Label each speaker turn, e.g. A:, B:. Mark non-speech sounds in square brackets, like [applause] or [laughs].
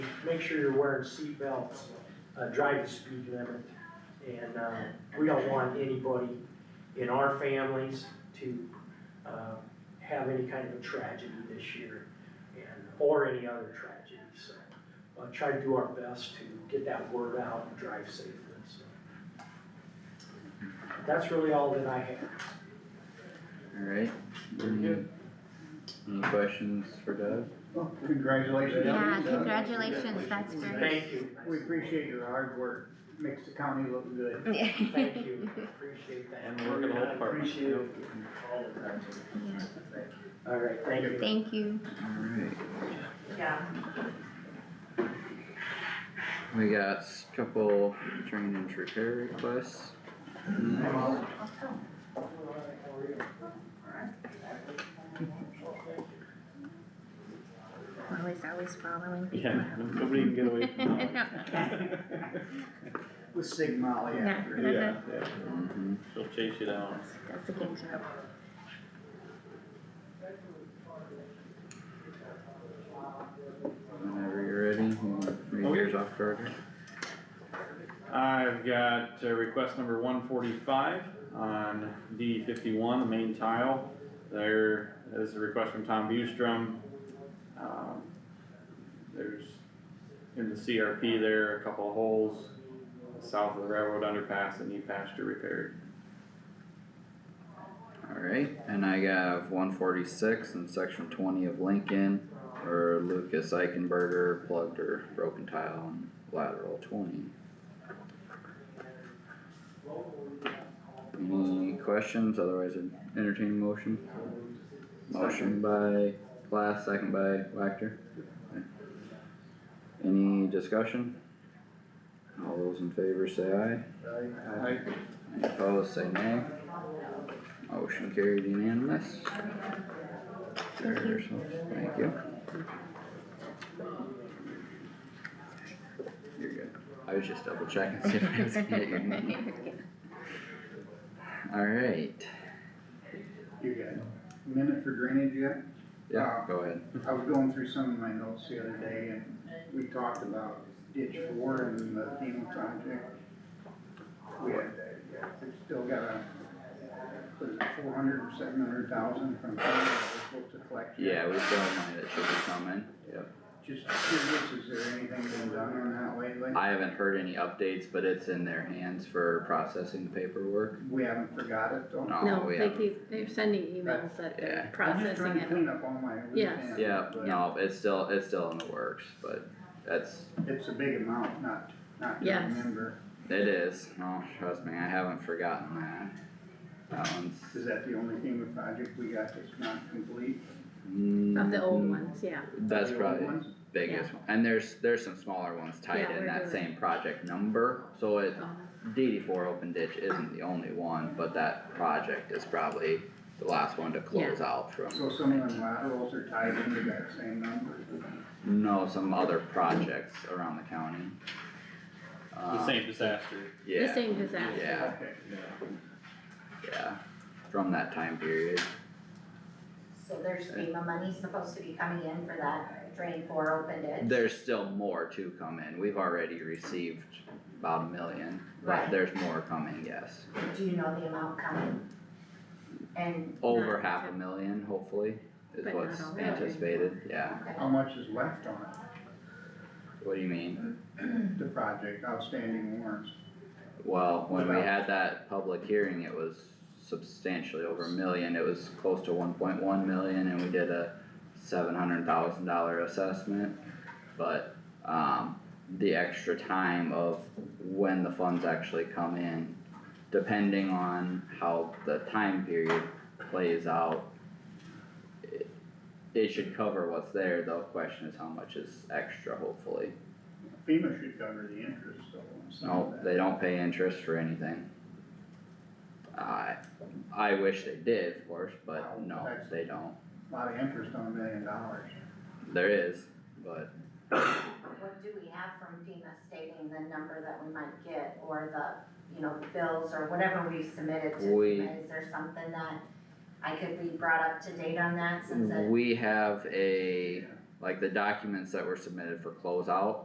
A: make sure you're wearing seatbelts, uh, drive the speed limit. And, uh, we don't want anybody in our families to, uh, have any kind of a tragedy this year and, or any other tragedy, so. Uh, try to do our best to get that word out and drive safely, so. That's really all that I have.
B: Alright.
C: Very good.
B: Any questions for Doug?
C: Well, congratulations.
D: Yeah, congratulations, that's great.
A: Thank you.
C: We appreciate your hard work, makes the county look good.
D: [laughs]
A: Thank you, appreciate that. [laughs]
B: And work in all departments.
A: Appreciate all of that.
D: Yeah.
A: All right, thank you.
D: Thank you.
B: Alright,
E: Yeah,
B: we got s- couple train and repair requests.
C: Mm-hmm.
D: Lily's always following people.
F: Yeah, no- nobody can get away
D: [laughs]
F: from that.
C: With Sigma, all you have to do.
F: Yeah, yeah,
B: Mhm.
F: she'll chase you down.
D: That's a good job.
B: Whenever you're ready, you can read yours off to order.
F: I've got uh, request number one forty-five on D fifty-one, the main tile. There is a request from Tom Bustrom. Um, There's, in the CRP there, a couple of holes south of the railroad underpass that need pasture repaired.
B: Alright, and I have one forty-six in section twenty of Lincoln, where Lucas Eichenberger plugged her broken tile in lateral twenty. Any questions, otherwise I'd entertain a motion? Motion by Glass, second by Wactor. Okay. Any discussion? All those in favor say aye,
C: I- I-
B: any opposed say nay. Motion carried unanimous. There's, thank you. You're good. I was just double checking, see if I was gonna get your
G: [laughs]
B: name.
D: [laughs]
B: Alright,
C: You got a minute for drainage yet?
B: yeah, go ahead.
C: I was going through some of my notes the other day and we talked about ditch four and the FEMA project. We had, we still got a, four hundred or seven hundred thousand from FEMA that we're supposed to collect. yet.
B: Yeah, we still have money that should be coming. Yep.
C: Just curious, is there anything been done on that lately?
B: I haven't heard any updates, but it's in their hands for processing the paperwork.
C: We haven't forgot it though?
B: No,
G: No,
B: we
G: they
B: haven't.
G: keep, they're sending emails that
B: Oh, Yeah.
G: they're
C: I'm
G: processing
C: just trying to
G: it.
C: clean up all my loose
G: Yes.
C: ends,
B: Yeah,
C: but
B: no, it's still, it's still in the works, but that's,
C: It's a big amount, not, not to
G: Yes.
C: remember.
B: it is. No, trust me, I haven't forgotten that. That one's.
C: Is that the only FEMA project we got that's not complete?
G: Of the old
B: Mm,
G: ones, yeah.
B: That's
C: The old
B: probably
C: ones?
B: biggest one, and there's, there's some smaller ones tied
G: Yeah,
B: in
G: we're
B: that
G: doing-
B: same project number, so it,
G: Uh,
B: DD four open ditch isn't the only one, but that project is probably the last one to close out from.
C: So some of them laterals are tied into that same number.
B: No, some other projects around the county.
F: The
B: Uh,
F: same disaster.
G: The
B: Yeah,
G: same disaster.
B: Yeah.
C: Okay.
B: yeah, from that time period,
E: so there's FEMA money supposed to be coming in for that drain four open ditch?
B: there's still more to come in, we've already received about a million, but
E: Right.
B: there's more coming, yes.
E: Do you know the amount coming? And,
B: Over
G: Not
B: half a
G: to-
B: million, hopefully, is
G: But not
B: what's
G: all of it.
B: anticipated, yeah,
E: okay,
C: How much is left on
B: what do you mean?
C: it? the project, outstanding warrants?
B: Well, when we
C: About-
B: had that public hearing, it was substantially over a million, it was close to one point one million, and we did a seven hundred thousand dollar assessment. But, um, the extra time of when the funds actually come in, depending on how the time period plays out. it- It should cover what's there, the question is how much is extra, hopefully,
C: FEMA should cover the interest though. on some of
B: no,
C: that.
B: Oh, they don't pay interest for anything. I, I wish they did, of course, but no, they don't,
C: Lot of interest on a million dollars.
B: there is, but
E: what do we have from FEMA stating the number that we might get, or the, you know, bills, or whatever we submitted to
B: We-
E: FEMA? Is there something that I could be brought up to date on that, since it
B: we have a, like the documents that were submitted for closeout.